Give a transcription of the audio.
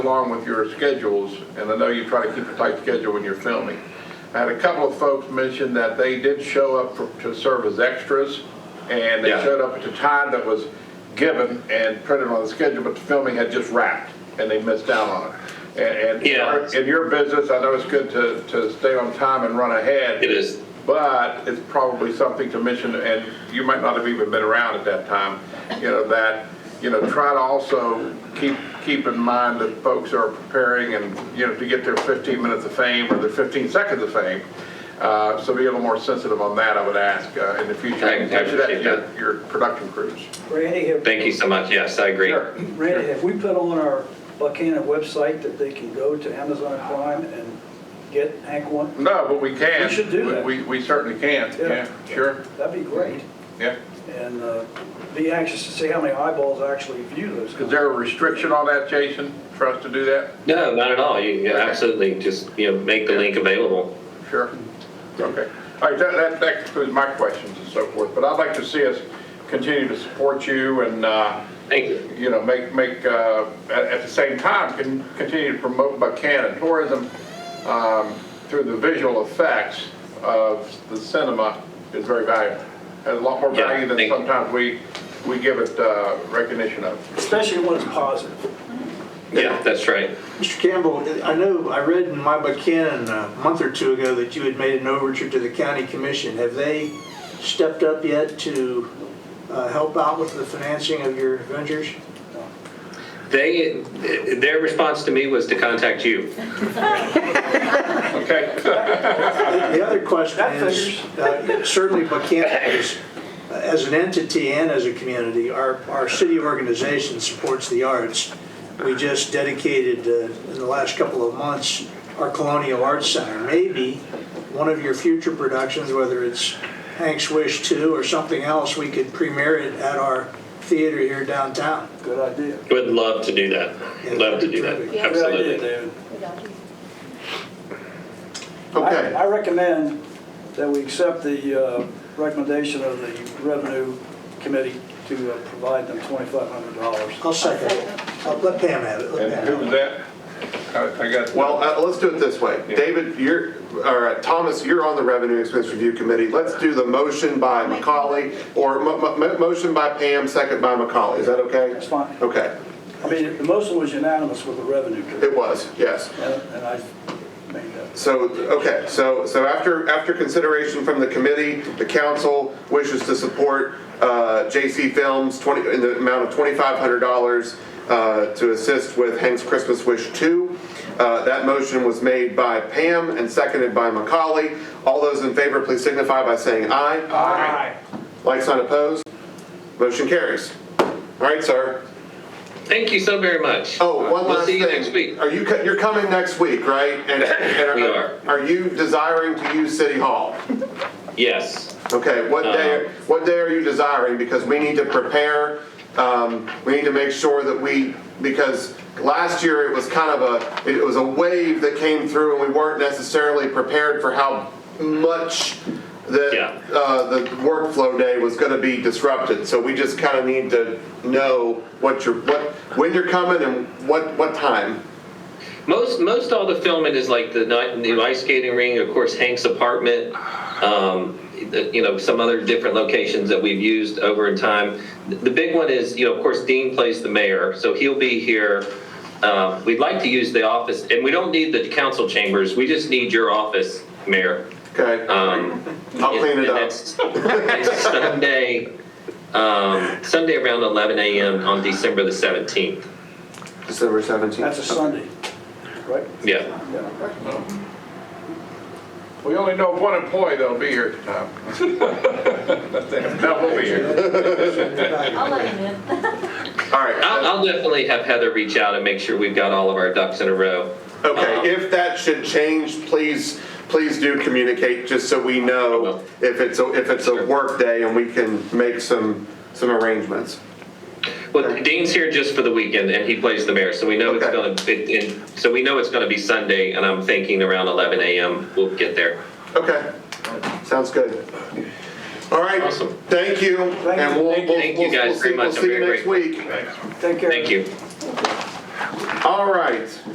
along with your schedules, and I know you try to keep a tight schedule when you're filming. I had a couple of folks mention that they did show up for- to serve as extras, and they Yeah. showed up at the time that was given and printed on the schedule, but the filming had just wrapped, and they missed out on it. And- And in Yeah. our- in your business, I know it's good to to stay on time and run ahead. It is. But it's probably something to mention, and you might not have even been around at that time, you know, that, you know, try to also keep, keep in mind that folks are preparing and, you know, to get their 15 minutes of fame or their 15 seconds of fame. Uh, So be a little more sensitive on that, I would ask, uh, in the future. I- I Mention that to appreciate your- that. Your production crews. Randy, have, Thank you so much, yes, I agree. Sure. Randy, have we put on our Buchanan website that they can go to Amazon Prime and get Hank one? No, but we can. We should do that. We, we certainly can, yeah, Yeah. sure, That'd be great. yeah. And uh, be anxious to see how many eyeballs actually view those. Is there a restriction on that, Jason, for us to do that? No, not at all, you, you Okay. absolutely, just, you know, make the link available. Sure. Okay. All right, that, that, that concludes my questions and so forth, but I'd like to see us continue to support you and, uh, Thank you. you know, make, make, uh, at, at the same time, can continue to promote Buchanan tourism, um, through the visual effects of the cinema is very valuable. Has a lot more Yeah, value than thank you. sometimes we, we give it, uh, recognition of. Especially when it's positive. Yeah, that's right. Mr. Campbell, I know, I read in my Buchanan a month or two ago that you had made an overture to the county commission. Have they stepped up yet to uh, help out with the financing of your ventures? They, their response to me was to contact you. Okay? The other question That is, uh, certainly Buchanan is, uh, as an entity and as a community, our, our city organization supports the arts. We just dedicated, uh, in the last couple of months, our Colonial Arts Center. Maybe one of your future productions, whether it's Hank's Wish Two or something else, we could premiere it at our theater here downtown. Good idea. Would love to do that, love to do that, Yeah. Good idea, absolutely. David. Okay. I I recommend that we accept the uh, recommendation of the Revenue Committee to uh, provide them $2,500. I'll second it. I'll Let Pam have it. Let And Pam who have it. was that? I, I got. Well, uh, let's do it this way. Yeah. David, you're, or uh, Thomas, you're on the Revenue Expense Review Committee. Let's do the motion by Macaulay, or mo- mo- mo- motion by Pam, second by Macaulay. Is that okay? That's fine. Okay, I mean, the motion was unanimous with the Revenue Committee. it was, yes. And and I made that. So, okay, so, so after, after consideration from the committee, the council wishes to support uh, JC Films 20, in the amount of $2,500 uh, to assist with Hank's Christmas Wish 2. Uh, That motion was made by Pam and seconded by Macaulay. All those in favor, please signify by saying aye. Aye. Like sign opposed? Motion carries. All right, sir. Thank you so very much. Oh, one We'll last see thing. you next week. Are you, co- you're coming next week, right? And- and We are. Are you desiring to use City Hall? Yes, Okay, what Uh-huh. day, what day are you desiring? Because we need to prepare, um, we need to make sure that we, because last year it was kind of a, it was a wave that came through and we weren't necessarily prepared for how much Yeah. the, uh, the workflow day was gonna be disrupted. So we just kind of need to know what you're, what, when you're coming and what, what time. most, most all the filming is like the night, new ice skating ring, of course Hank's apartment, um, the- you know, some other different locations that we've used over in time. The- The big one is, you know, of course Dean plays the mayor, so he'll be here. Um, We'd like to use the office, and we don't need the council chambers, we just need your office, Mayor. Okay, Um, I'll clean and it up. that's- that's Sunday, um, Sunday around 11 a.m. on December the 17th. December seventeenth. That's a Sunday, right? Yeah. Yeah. We only know of one employee that'll be here at the time. That will be here. I'll let him in. All right. I'll, I'll definitely have Heather reach out and make sure we've got all of our ducks in a row. Um, Okay, if that should change, please, please do communicate, just so we know will. if it's, a if it's Sure. a work day and we can make some, some arrangements. Well, Dean's here just for the weekend, and he plays the mayor, so we know it's Okay. going to. It, it, so we know it's going to be Sunday, and I'm thinking around 11 a.m. We'll get there. Okay, sounds good. All right, Awesome. thank you, Thank and you. we'll, we'll, Thank you we'll guys very we'll see, we'll much. I'm see you very next grateful. week. Take care. Thank you. All right.